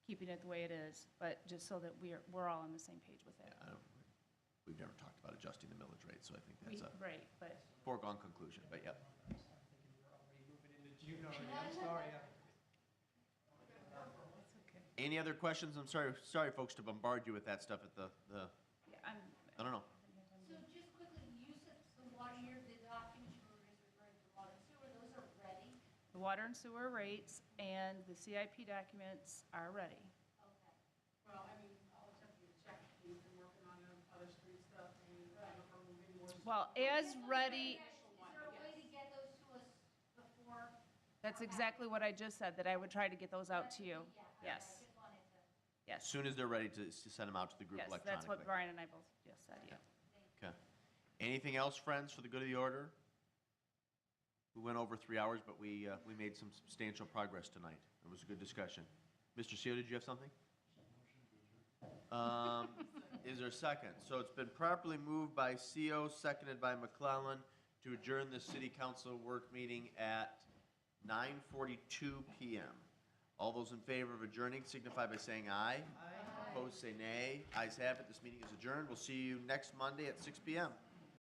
keeping it the way it is, but just so that we're, we're all on the same page with it. I don't- We've never talked about adjusting the millage rate, so I think We- that's a Right, but foregone conclusion, but yep. it's okay. Any other questions? I'm sorry, sorry, folks, to bombard you with that stuff at the, the, Yeah, I'm, I don't know. So just quickly, you said the water, your, the documents you were just referring to, water and sewer, those are ready? the water and sewer rates and the CIP documents are ready. Okay. Well, I mean, I'll attempt to check, we've been working on other street stuff, and uh, I don't know, maybe more. Well, as ready, Is there a way to get those to us before? that's exactly what I just said, that I would try to get those out to you. Yeah, okay, I Yes, just wanted to, As yes, soon as they're ready to, to send them out to the yes, group that's what electronically. Brian and I both just said, yeah. Okay. Anything else, friends, for the good of the order? We went over three hours, but we, uh, we made some substantial progress tonight. It was a good discussion. Mr. Seo, did you have something? Um, Is there a second? So it's been properly moved by Seo, seconded by McClellan, to adjourn the city council work meeting at 9:42 PM. All those in favor of adjourning signify by saying aye. Aye. Opposed, say nay. Ayes have it, this meeting is adjourned. We'll see you next Monday at 6 PM.